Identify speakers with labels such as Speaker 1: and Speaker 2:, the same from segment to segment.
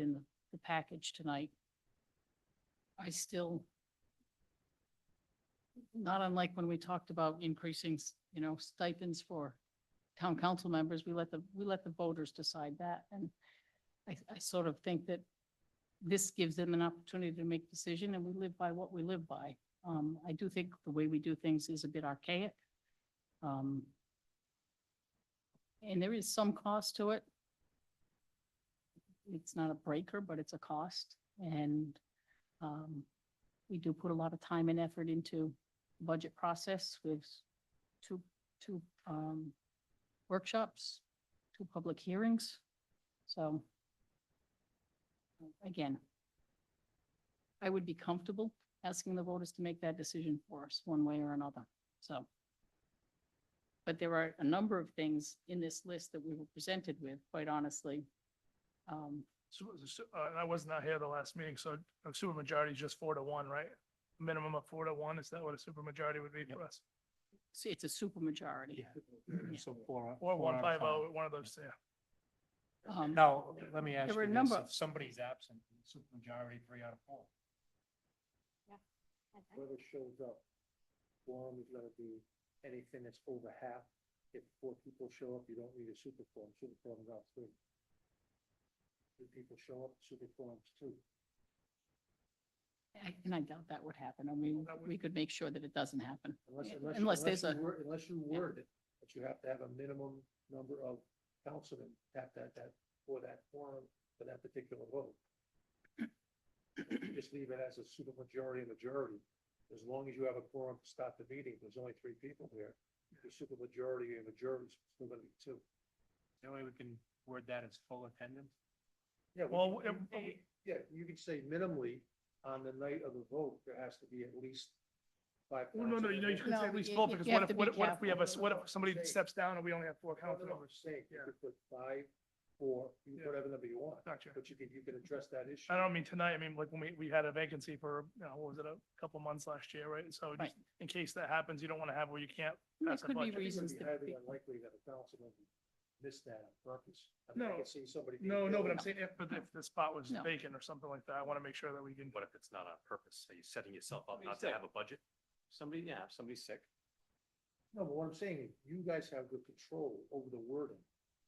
Speaker 1: in the- the package tonight. I still, not unlike when we talked about increasing, s- you know, stipends for town council members, we let the, we let the voters decide that. And I, I sort of think that this gives them an opportunity to make decision and we live by what we live by. Um, I do think the way we do things is a bit archaic. Um, and there is some cost to it. It's not a breaker, but it's a cost. And um, we do put a lot of time and effort into the budget process with two, two um, workshops, two public hearings. So again, I would be comfortable asking the voters to make that decision for us, one way or another. So. But there are a number of things in this list that we were presented with, quite honestly. Um,
Speaker 2: So, so, uh, and I was not here the last meeting, so a supermajority is just four to one, right? Minimum of four to one, is that what a supermajority would be for us?
Speaker 1: so it's a supermajority.
Speaker 3: So four.
Speaker 2: Or
Speaker 3: four out
Speaker 2: one
Speaker 3: of
Speaker 2: five oh, one of those, yeah.
Speaker 1: Um,
Speaker 3: Now, let me ask
Speaker 1: were
Speaker 3: you
Speaker 1: a
Speaker 3: this,
Speaker 1: number of-
Speaker 3: if somebody's absent, supermajority, three out of four.
Speaker 4: whoever shows up, quorum is gonna be anything that's over half. If four people show up, you don't need a super quorum, super quorum's out three. Two people show up, super quorum's two.
Speaker 1: I- And I doubt that would happen. I mean,
Speaker 2: That would-
Speaker 1: we could make sure that it doesn't happen.
Speaker 4: Unless,
Speaker 1: Yeah,
Speaker 4: unless. you-
Speaker 1: unless there's
Speaker 4: you
Speaker 1: a-
Speaker 4: wor- Unless you word it, that you have to have a minimum number of councilmen at that, that, for that quorum, for that particular vote. You Just leave it as a super majority and majority. As long as you have a quorum to start the meeting, there's only three people here. The super majority and majority is still gonna be two.
Speaker 3: That way we can word that as full attendance.
Speaker 4: Yeah, we
Speaker 2: Well,
Speaker 4: can-
Speaker 2: it-
Speaker 4: you- Yeah, you could say minimally, on the night of the vote, there has to be at least five.
Speaker 2: Well, no, no,
Speaker 4: councilmen
Speaker 2: you know, you
Speaker 4: there.
Speaker 2: couldn't
Speaker 1: No,
Speaker 2: say at least
Speaker 1: you-
Speaker 2: four,
Speaker 1: you
Speaker 2: because
Speaker 1: have
Speaker 2: what
Speaker 1: to
Speaker 2: if,
Speaker 1: be
Speaker 2: what if, what if we have a,
Speaker 4: careful.
Speaker 2: what if somebody
Speaker 4: Say.
Speaker 2: steps down and we only have four
Speaker 4: No, no,
Speaker 2: council
Speaker 4: no, I'm
Speaker 2: members?
Speaker 4: saying, you
Speaker 2: Yeah.
Speaker 4: could put five, four, you
Speaker 2: Yeah.
Speaker 4: put whatever number you want,
Speaker 2: Gotcha.
Speaker 4: but you could, you could address that issue.
Speaker 2: I don't mean tonight, I mean, like, when we, we had a vacancy for, you know, what was it, a couple months last year, right? So just
Speaker 1: Right.
Speaker 2: in case that happens, you don't want to have where you can't
Speaker 1: There
Speaker 2: pass a
Speaker 1: could be
Speaker 2: budget.
Speaker 4: I think it would
Speaker 1: reasons
Speaker 4: be
Speaker 1: that
Speaker 4: highly
Speaker 1: we-
Speaker 4: unlikely that a councilman would miss that on purpose. I mean, I
Speaker 2: No.
Speaker 4: could see somebody. being
Speaker 2: No, no, but
Speaker 4: ill.
Speaker 2: I'm saying if, but if the spot was
Speaker 1: No.
Speaker 2: vacant or something like that, I want to make sure that we can.
Speaker 5: What if it's not on purpose? Are you setting yourself up
Speaker 3: Somebody's
Speaker 5: not to
Speaker 3: sick.
Speaker 5: have a budget? Somebody, yeah, if somebody's sick.
Speaker 4: No, but what I'm saying is, you guys have good control over the wording.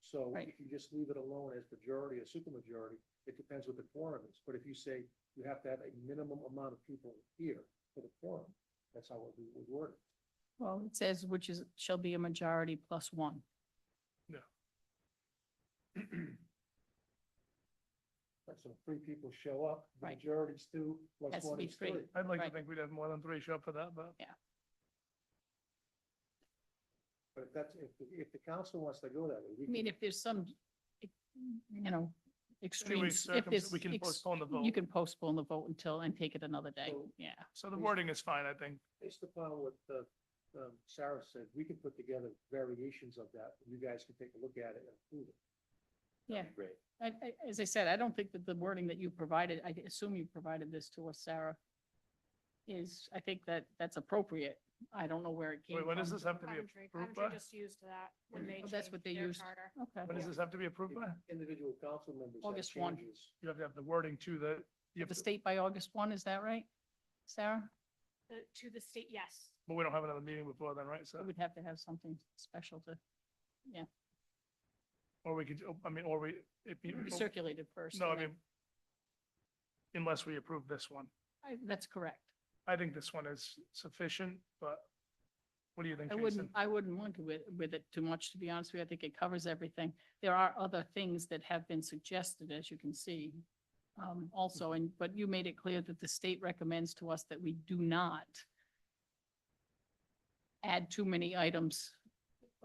Speaker 4: So
Speaker 1: Right.
Speaker 4: if you just leave it alone as majority or supermajority, it depends what the quorum is. But if you say you have to have a minimum amount of people here for the quorum, that's how it would word it.
Speaker 1: Well, it says which is, shall be a majority plus one.
Speaker 4: Right, So three people show up, the
Speaker 1: Right.
Speaker 4: majority's two, plus
Speaker 1: Has to
Speaker 4: one
Speaker 1: be
Speaker 4: is three.
Speaker 1: three.
Speaker 2: I'd like to
Speaker 1: Right.
Speaker 2: think we'd have more than three show up for that, but
Speaker 4: But if that's, if, if the council wants to go that way, we
Speaker 1: I mean,
Speaker 4: can,
Speaker 1: if there's some, you know,
Speaker 2: two weeks,
Speaker 1: extremes. if
Speaker 2: circums-
Speaker 1: there's
Speaker 2: we can
Speaker 1: ex-
Speaker 2: postpone the vote.
Speaker 1: You can postpone the vote until, and take it another day.
Speaker 4: So-
Speaker 1: Yeah.
Speaker 2: So the wording is fine, I think.
Speaker 4: based upon what, uh, um, Sarah said, we can put together variations of that. You guys can take a look at it and approve it.
Speaker 1: Yeah.
Speaker 5: Great.
Speaker 1: I, I, as I said, I don't think that the wording that you provided, I assume you provided this to us, Sarah, is, I think that that's appropriate. I don't know where it came
Speaker 2: Wait,
Speaker 1: from.
Speaker 2: what does this have to be
Speaker 6: Coventry,
Speaker 2: approved
Speaker 6: Coventry
Speaker 2: by?
Speaker 6: just used that when they
Speaker 1: Oh, that's what
Speaker 6: changed
Speaker 1: they
Speaker 6: their
Speaker 1: used.
Speaker 6: charter.
Speaker 2: What
Speaker 1: Okay.
Speaker 2: does this have to be approved by?
Speaker 4: Individual council members have
Speaker 1: August 1.
Speaker 4: changes.
Speaker 2: You have to have the wording to the, you have
Speaker 1: The
Speaker 2: to-
Speaker 1: state by August one, is that right, Sarah?
Speaker 6: The- To the state, yes.
Speaker 2: but we don't have another meeting before then, right? So,
Speaker 1: We'd have to have something special to
Speaker 2: or we could, I mean, or we, if you,
Speaker 1: be circulated first.
Speaker 2: no, I
Speaker 1: and
Speaker 2: mean,
Speaker 1: then-
Speaker 2: unless we approve this one.
Speaker 1: I- That's correct.
Speaker 2: I think this one is sufficient, but what do you think,
Speaker 1: I
Speaker 2: Jason?
Speaker 1: wouldn't, I wouldn't want to with, with it too much, to be honest with you. I think it covers everything. There are other things that have been suggested, as you can see. Um, also, and, but you made it clear that the state recommends to us that we do not add too many items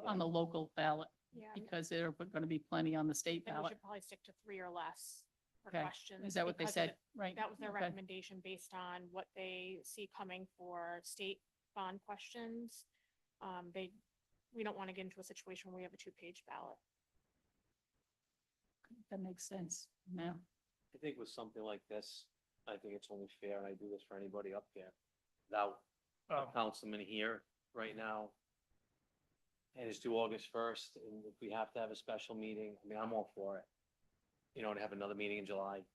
Speaker 1: on the local ballot,
Speaker 6: Yeah. and-
Speaker 1: because there are going to be plenty on the state
Speaker 6: And we
Speaker 1: ballot.
Speaker 6: should probably stick to three or less for
Speaker 1: Okay.
Speaker 6: questions.
Speaker 1: Is that what they
Speaker 6: because of
Speaker 1: said?
Speaker 6: it-
Speaker 1: Right?
Speaker 6: That was their
Speaker 1: Okay.
Speaker 6: recommendation based on what they see coming for state bond questions. Um, they, we don't want to get into a situation where we have a two-page ballot.
Speaker 1: That makes sense. Yeah.
Speaker 5: I think with something like this, I think it's only fair, and I do this for anybody up here, without a
Speaker 2: Oh,
Speaker 5: councilman here right now. And it's due August first, and if we have to have a special meeting, I mean, I'm all for it. You know, to have another meeting in July,